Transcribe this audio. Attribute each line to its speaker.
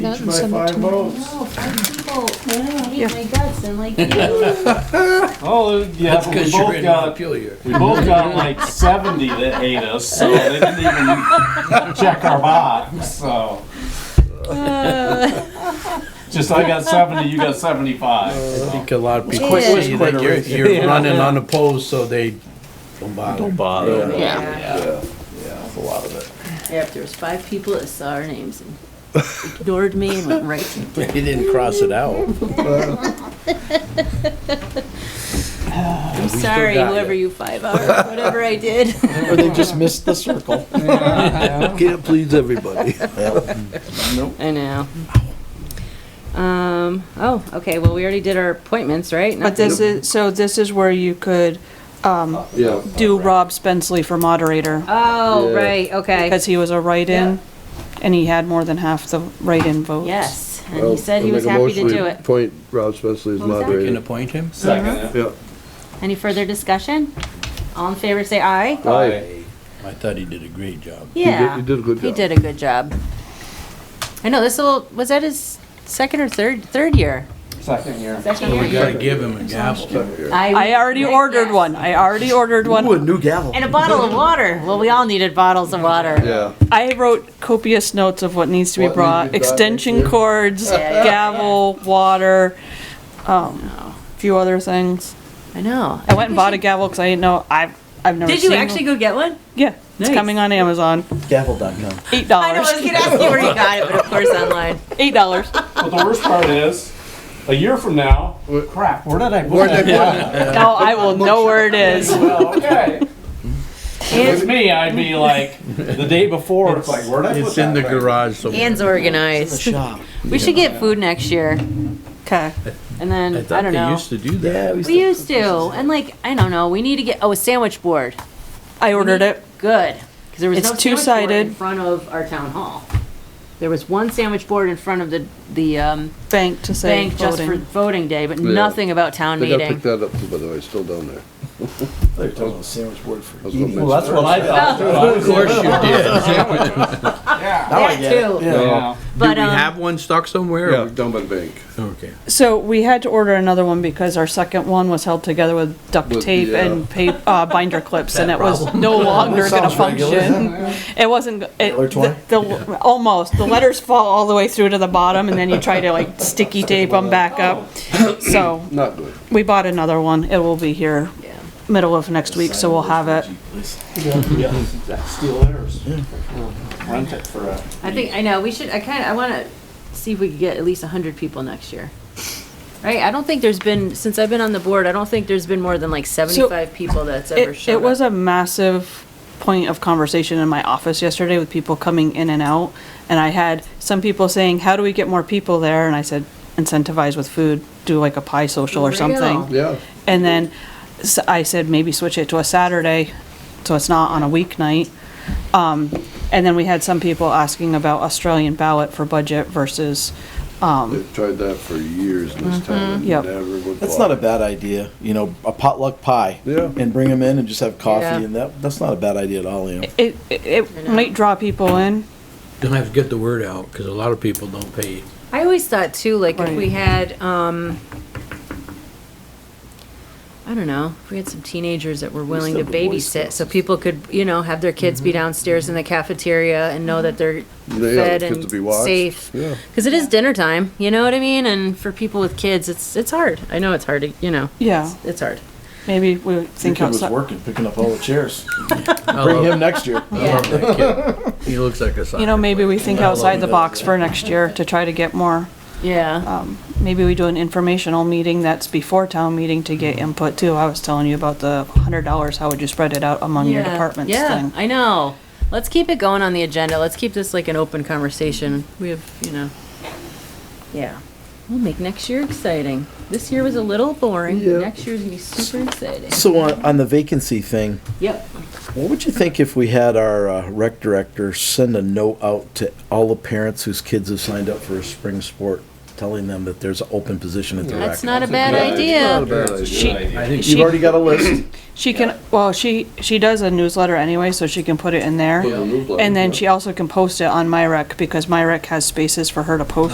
Speaker 1: that and send it to me.
Speaker 2: No, Oh, five people hate my guts and like you.
Speaker 3: Oh, yeah,
Speaker 4: That's
Speaker 3: but we
Speaker 4: because you're
Speaker 3: both
Speaker 4: in
Speaker 3: got,
Speaker 4: Montpelier.
Speaker 3: we both got like seventy that hate us, so they didn't even check our box, so. Just I got seventy, you got seventy-five.
Speaker 4: I
Speaker 3: so.
Speaker 4: think a lot of people
Speaker 2: Quick- quick
Speaker 4: see that you're,
Speaker 3: quitter.
Speaker 4: you're running on the poles, so they don't bother.
Speaker 5: Don't bother.
Speaker 2: Yeah.
Speaker 4: That's a lot of it.
Speaker 2: Yeah, if there was five people that saw our names and ignored me and went right to
Speaker 4: They didn't cross it out.
Speaker 2: I'm sorry,
Speaker 4: got
Speaker 2: whoever
Speaker 4: it.
Speaker 2: you five are, whatever I did.
Speaker 5: Or they just missed the circle.
Speaker 4: Can't please everybody.
Speaker 2: I know. Um, oh, okay, well, we already did our appointments, right?
Speaker 1: But this is, so this is where you could um,
Speaker 6: Yeah,
Speaker 1: do Rob Spensley for moderator,
Speaker 2: Oh,
Speaker 6: Yeah.
Speaker 2: right, okay.
Speaker 1: because he was a write-in, and he had more than half the write-in votes.
Speaker 2: Yes, and
Speaker 6: well,
Speaker 2: he said he
Speaker 6: I'll
Speaker 2: was
Speaker 6: make a
Speaker 2: happy to
Speaker 6: motion
Speaker 2: do
Speaker 6: we
Speaker 2: it.
Speaker 6: Appoint Rob Spensley as
Speaker 2: What was that?
Speaker 4: Can
Speaker 6: moderator.
Speaker 4: appoint him?
Speaker 3: Second,
Speaker 6: Yeah.
Speaker 2: Any further discussion? All in favor, say aye.
Speaker 6: Aye.
Speaker 4: I thought he did a great job.
Speaker 6: You Oh, did-
Speaker 2: Yeah.
Speaker 6: You did a good job.
Speaker 2: He did a good job. I know, this will, was that his second or third, third year?
Speaker 3: second year.
Speaker 2: Second
Speaker 4: We
Speaker 2: year?
Speaker 4: gotta give him a gavel.
Speaker 1: I already ordered one, I already ordered one.
Speaker 6: new gavel.
Speaker 2: And a bottle of water. Well, we all needed bottles of water.
Speaker 6: Yeah.
Speaker 1: I wrote copious notes of what needs to be
Speaker 6: What
Speaker 1: brought,
Speaker 6: needs to be brought next
Speaker 1: extension
Speaker 6: year.
Speaker 1: cords,
Speaker 2: Yeah, yeah,
Speaker 1: gavel, water, um, few other things.
Speaker 2: I know.
Speaker 1: I went and bought a gavel, because I didn't know, I've, I've never seen.
Speaker 2: Did you
Speaker 1: one.
Speaker 2: actually go get one?
Speaker 1: Yeah, it's
Speaker 2: Nice.
Speaker 1: coming on Amazon,
Speaker 5: Gavel.com.
Speaker 1: eight
Speaker 2: I know, I
Speaker 1: dollars,
Speaker 2: was gonna ask you where you got it, but of course online.
Speaker 1: eight dollars.
Speaker 3: But the worst part is, a year from now, crap, where did I put that?
Speaker 1: No, I will know where it is.
Speaker 3: Well, okay. It's me, I'd be like, the day before, it's like, where'd I put
Speaker 4: It's in the
Speaker 3: that thing?
Speaker 4: garage somewhere.
Speaker 2: Anne's organized. We should get food next year,
Speaker 1: Okay.
Speaker 2: and then, I
Speaker 4: thought
Speaker 2: don't
Speaker 4: they
Speaker 2: know.
Speaker 4: used to do that.
Speaker 2: We used to, and like, I don't know, we need to get, oh, a sandwich board.
Speaker 1: I ordered it.
Speaker 2: Good, because there was
Speaker 1: It's
Speaker 2: no sandwich board in
Speaker 1: two-sided.
Speaker 2: front of our town hall. There was one sandwich board in front of the, the, um,
Speaker 1: Bank to say
Speaker 2: bank just for
Speaker 1: voting.
Speaker 2: voting day, but
Speaker 6: Yeah.
Speaker 2: nothing about town
Speaker 6: They gotta pick
Speaker 2: meeting.
Speaker 6: that up too, by the way, it's still down there.
Speaker 5: They're talking about sandwich word for
Speaker 6: That's what
Speaker 5: eating.
Speaker 6: makes-
Speaker 3: Well, that's what I thought too. I
Speaker 4: Of
Speaker 3: was
Speaker 4: course you did.
Speaker 2: That too,
Speaker 3: Yeah.
Speaker 4: Do we
Speaker 2: but, um,
Speaker 4: have one stuck somewhere?
Speaker 6: Yeah,
Speaker 4: or-
Speaker 6: down by the bank.
Speaker 4: Okay.
Speaker 1: So we had to order another one because our second one was held together with duct
Speaker 6: With
Speaker 1: tape
Speaker 6: the,
Speaker 1: and pa- uh, binder clips and it was no longer gonna
Speaker 5: sounds regular.
Speaker 1: function. It wasn't, it,
Speaker 5: Or twine?
Speaker 1: the, the- almost, the letters fall all the way through to the bottom and then you try to like sticky tape them back up. So
Speaker 6: Not good.
Speaker 1: we bought another one. It will be here
Speaker 2: yeah.
Speaker 1: middle of next week, so we'll have it.
Speaker 3: Steal theirs. Rent it for a.
Speaker 2: I think, I know, we should, I kinda, I wanna see if we could get at least a hundred people next year. Right, I don't think there's been, since I've been on the board, I don't think there's been more than like seventy-five people that's ever
Speaker 1: It,
Speaker 2: showed
Speaker 1: it
Speaker 2: up.
Speaker 1: was a massive point of conversation in my office yesterday with people coming in and out. And I had some people saying, how do we get more people there? And I said, incentivize with food, do like a pie social or something.
Speaker 2: Real.
Speaker 6: Yeah,
Speaker 1: And then s- I said, maybe switch it to a Saturday, so it's not on a weeknight. Um, and then we had some people asking about Australian ballot for budget versus, um,
Speaker 6: they've tried that for years in this
Speaker 2: Mm-hmm.
Speaker 6: town. and
Speaker 1: Yep.
Speaker 6: never would
Speaker 5: That's not a
Speaker 6: fly.
Speaker 5: bad idea, you know, a potluck pie.
Speaker 6: Yeah.
Speaker 5: And bring them in and just have
Speaker 2: Yeah.
Speaker 5: coffee and that, that's not a bad idea at all, you know.
Speaker 1: it, it, it might draw people in.
Speaker 4: Don't have to get the word out, because a lot of people don't pay.
Speaker 2: I always thought too, like if we
Speaker 1: Right.
Speaker 2: had, um, I don't know, if we had some teenagers that were willing to
Speaker 5: have the Boy Mm-hmm.
Speaker 2: babysit, so people could, you know, have their kids be downstairs in the cafeteria and know
Speaker 1: Mm-hmm.
Speaker 2: that they're
Speaker 6: They have
Speaker 2: fed
Speaker 6: the kids
Speaker 2: and
Speaker 6: to be watched.
Speaker 2: safe.
Speaker 6: Yeah.
Speaker 2: Cause it is dinner time, you know what I mean? And for people with kids, it's, it's hard. I know it's hard to, you know,
Speaker 1: Yeah,
Speaker 2: it's hard.
Speaker 1: maybe we
Speaker 5: Your
Speaker 1: think
Speaker 5: kid was
Speaker 1: outside.
Speaker 5: working, picking up all the chairs.
Speaker 4: I
Speaker 5: Bring
Speaker 4: love-
Speaker 5: him next year.
Speaker 4: I love that kid. He looks like a soccer
Speaker 1: You know, maybe we
Speaker 4: player.
Speaker 1: think
Speaker 4: I love
Speaker 1: outside the
Speaker 4: that.
Speaker 1: box for next year to try to get more.
Speaker 2: Yeah.
Speaker 1: Um, maybe we do an informational meeting that's before town meeting to get input too. I was telling you about the hundred dollars, how would you spread it out among your
Speaker 2: Yeah.
Speaker 1: departments
Speaker 2: Yeah,
Speaker 1: thing?
Speaker 2: I know. Let's keep it going on the agenda. Let's keep this like an open conversation. We have, you know. Yeah. We'll make next year exciting. This year was a little boring.
Speaker 6: Yeah.
Speaker 2: Next year's gonna be super exciting.
Speaker 5: So on, on the vacancy thing,
Speaker 2: Yep.
Speaker 5: What would you think if we had our uh, rec director send a note out to all the parents whose kids have signed up for a spring sport, telling them that there's an open position at the rec?
Speaker 2: That's not a bad
Speaker 6: Yeah, it's Not a
Speaker 2: idea.
Speaker 6: bad idea.
Speaker 1: She,
Speaker 4: I think
Speaker 5: You've already got a list.
Speaker 1: she can, well, she, she does a newsletter anyway, so she can put it in there.
Speaker 6: Put it in the newsletter,
Speaker 1: And then
Speaker 6: yeah.
Speaker 1: she also can post it on MyRec because MyRec has spaces for her to post